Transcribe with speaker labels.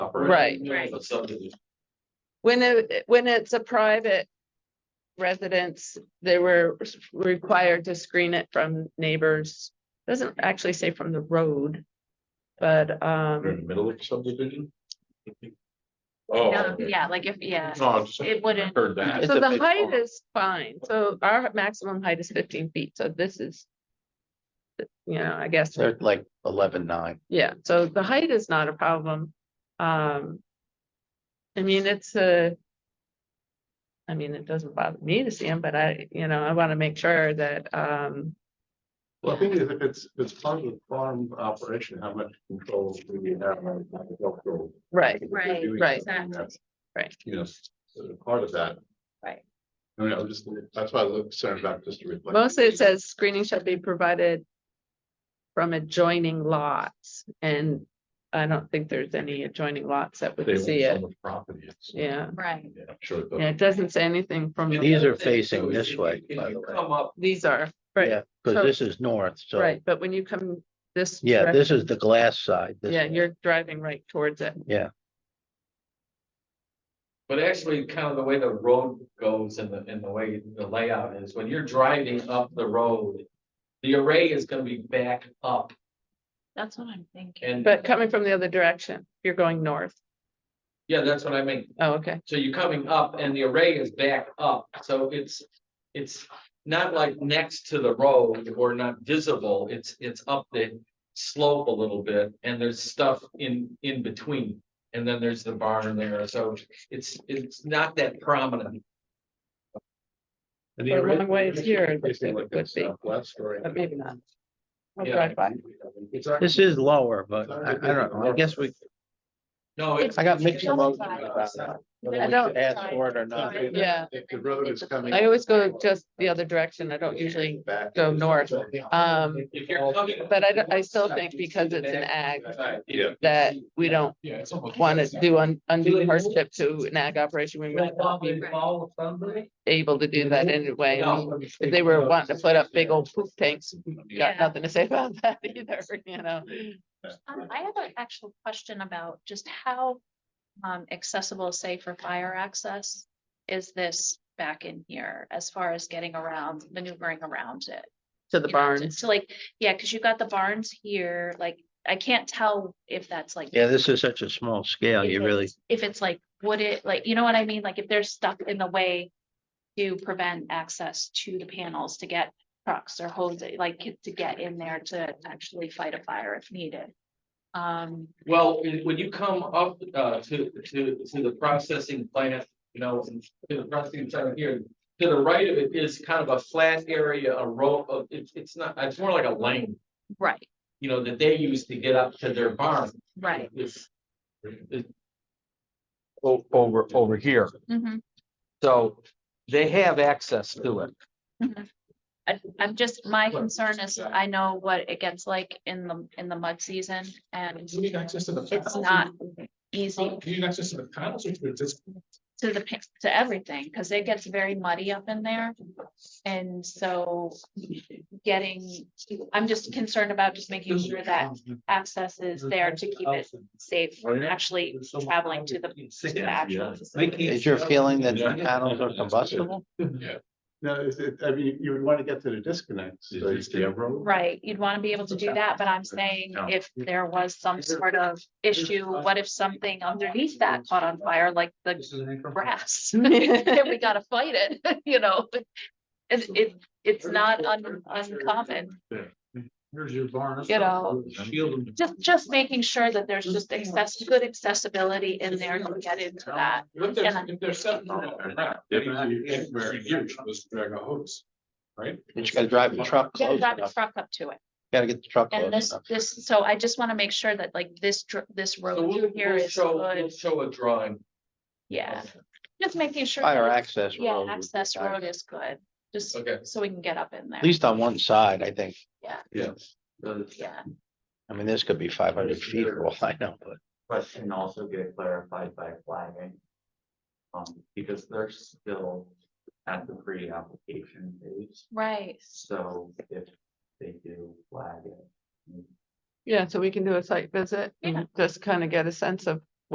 Speaker 1: operation.
Speaker 2: Right.
Speaker 1: But subdivision.
Speaker 3: When it, when it's a private residence, they were required to screen it from neighbors. Doesn't actually say from the road. But,
Speaker 1: We're in
Speaker 3: um,
Speaker 1: the middle of subdivision. Oh.
Speaker 2: No, Yeah, like if, yeah,
Speaker 3: Oh.
Speaker 1: No, I just
Speaker 2: it wouldn't,
Speaker 1: heard that.
Speaker 3: so the height is fine. So our maximum height is fifteen feet. So this is. You know, I guess,
Speaker 4: They're like eleven nine.
Speaker 3: yeah, so the height is not a problem. Um. I mean, it's a. I mean, it doesn't bother me to see them, but I, you know, I want to make sure that, um,
Speaker 1: Well, I think if it's, if it's part of the farm operation, how much control do we have? on the agricultural-
Speaker 3: right,
Speaker 2: Right,
Speaker 1: doing
Speaker 3: right.
Speaker 1: something that's,
Speaker 3: Right.
Speaker 1: You know, sort of part of that.
Speaker 2: Right.
Speaker 1: I mean, I was just, that's why I looked, sorry about just to reflect.
Speaker 3: mostly it says screening shall be provided. From adjoining lots and I don't think there's any adjoining lots that
Speaker 1: They
Speaker 3: would
Speaker 1: own
Speaker 3: see
Speaker 1: so
Speaker 3: it,
Speaker 1: much Property. it's-
Speaker 3: yeah,
Speaker 2: right.
Speaker 1: Yeah, I'm sure. it does.
Speaker 3: yeah, it doesn't say anything from, the-
Speaker 4: These are facing this way, by the way.
Speaker 5: Come up,
Speaker 3: these are, right,
Speaker 4: Yeah, because this is north, so,
Speaker 3: right, but when you come this.
Speaker 4: yeah, this is
Speaker 3: direction,
Speaker 4: the glass side. this
Speaker 3: Yeah,
Speaker 4: is-
Speaker 3: you're driving right towards it,
Speaker 5: but actually kind of the way the road goes and the, and the way the layout is, when you're driving up the road. The array is gonna be back up
Speaker 2: That's what I'm thinking.
Speaker 5: and,
Speaker 3: but coming from the other direction, you're going north,
Speaker 5: yeah, that's what I mean.
Speaker 3: oh, okay,
Speaker 5: So you're coming up and the array is back up, so it's, it's not like next to the road or not visible, it's, it's up the. Slope a little bit and there's stuff in, in between, and then there's the barn there, so it's, it's not that prominent.
Speaker 1: And the
Speaker 3: But
Speaker 1: array-
Speaker 3: one way is here, it looks
Speaker 1: Facing
Speaker 3: like
Speaker 1: like
Speaker 3: it would
Speaker 1: it's
Speaker 3: be.
Speaker 1: southwest or-
Speaker 3: but maybe not. I'll
Speaker 5: Yeah.
Speaker 3: drive by.
Speaker 1: It's actually-
Speaker 4: This is lower, but I, I don't know, I guess we,
Speaker 5: No, it's.
Speaker 4: I got mixed
Speaker 2: It's on the
Speaker 4: emotions
Speaker 2: side.
Speaker 4: about that. whether
Speaker 2: I
Speaker 4: we
Speaker 3: don't-
Speaker 4: should Ask for it or not.
Speaker 2: Sorry.
Speaker 3: Yeah.
Speaker 1: If the road is coming.
Speaker 3: I always go just the other direction, I don't usually,
Speaker 1: Back.
Speaker 3: go north. um,
Speaker 5: If you're coming-
Speaker 3: but I, don't- I still think because it's an ag,
Speaker 1: Yeah.
Speaker 3: that we don't
Speaker 5: Yeah, it's almost-
Speaker 3: want to do un- undue hardship to an ag operation, we might not be able to do that anyway. I mean, If they were wanting to put up big old poop tanks, we got
Speaker 2: Yeah.
Speaker 3: nothing to say about that either, you know?
Speaker 1: uh,
Speaker 2: Um, I have an actual question about just how um accessible, say for fire access, is this back in here as far as getting around, maneuvering around it?
Speaker 3: To the
Speaker 2: you know, to-
Speaker 3: barns,
Speaker 2: So like, yeah, because you've got the barns here, like, I can't tell if that's like.
Speaker 4: Yeah, this is such a small scale,
Speaker 2: if
Speaker 4: you really,
Speaker 2: it's- If it's like, would it, like, you know what I mean? Like if they're stuck in the way to prevent access to the panels to get trucks or hoses, like to get in there to actually fight a fire if needed. Um,
Speaker 5: Well, when- when you come up uh to to to the processing plant, you know, and to the processing plant here. To the right of it is kind of a flat area, a rope of, it's it's not, it's more like a lane,
Speaker 2: right,
Speaker 5: you know, that they use to get up to their barn.
Speaker 2: right.
Speaker 5: It's- it-
Speaker 1: Over,
Speaker 5: over
Speaker 1: here.
Speaker 2: Mhm,
Speaker 5: So they have access to it.
Speaker 2: mhm. I, I'm just, my
Speaker 5: Well,
Speaker 2: concern is I know what it gets like in the, in the mud season and
Speaker 1: Do you need access to the?
Speaker 2: it's not easy
Speaker 1: Do you need access to the panels or to just?
Speaker 2: to the, pic- to everything, because it gets very muddy up in there. And so getting, I'm just concerned about just making sure that access is there to keep it safe from actually traveling to the to the actual. facility.
Speaker 4: is your feeling that the panels are combustible?
Speaker 1: No, it's, it, I mean, you would want to get to the disconnects.
Speaker 2: Right, you'd want to be able to do that, but I'm saying if there was some sort of issue, what if something underneath that caught on fire, like the grass? Then we gotta fight it, you know? It, it, it's not un- uncommon.
Speaker 1: Here's your barn.
Speaker 2: You know,
Speaker 1: Shield them.
Speaker 2: Just, just making sure that there's just access, good accessibility in there to get into that.
Speaker 1: If
Speaker 2: there's- Yeah.
Speaker 1: if there's seven. drag a hose.
Speaker 4: You just gotta drive the truck
Speaker 2: Gotta
Speaker 4: close
Speaker 2: drive the
Speaker 4: enough,
Speaker 2: truck up to it.
Speaker 4: gotta get the truck
Speaker 2: And
Speaker 4: close
Speaker 2: this,
Speaker 4: enough.
Speaker 2: this, so I just want to make sure that like this, dr- this
Speaker 5: So
Speaker 2: road
Speaker 5: we'll
Speaker 2: through here
Speaker 5: we'll
Speaker 2: is
Speaker 5: show, we'll
Speaker 2: good,
Speaker 5: show a drawing.
Speaker 2: yeah. Just making sure.
Speaker 4: Fire
Speaker 2: that-
Speaker 4: access. road
Speaker 2: Yeah,
Speaker 4: would be
Speaker 2: access
Speaker 4: nice.
Speaker 2: road is good, just
Speaker 5: Okay.
Speaker 2: so we can get up in there.
Speaker 4: At least on one side, I think.
Speaker 2: Yeah,
Speaker 4: I mean, this could be five hundred feet or all I know, but
Speaker 6: question also get clarified by flagging. Um, because they're still at the pre-application phase,
Speaker 2: right,
Speaker 6: so if they do flag it.
Speaker 3: yeah, so we can do a site visit
Speaker 2: Yeah.
Speaker 3: and just kind of get a sense of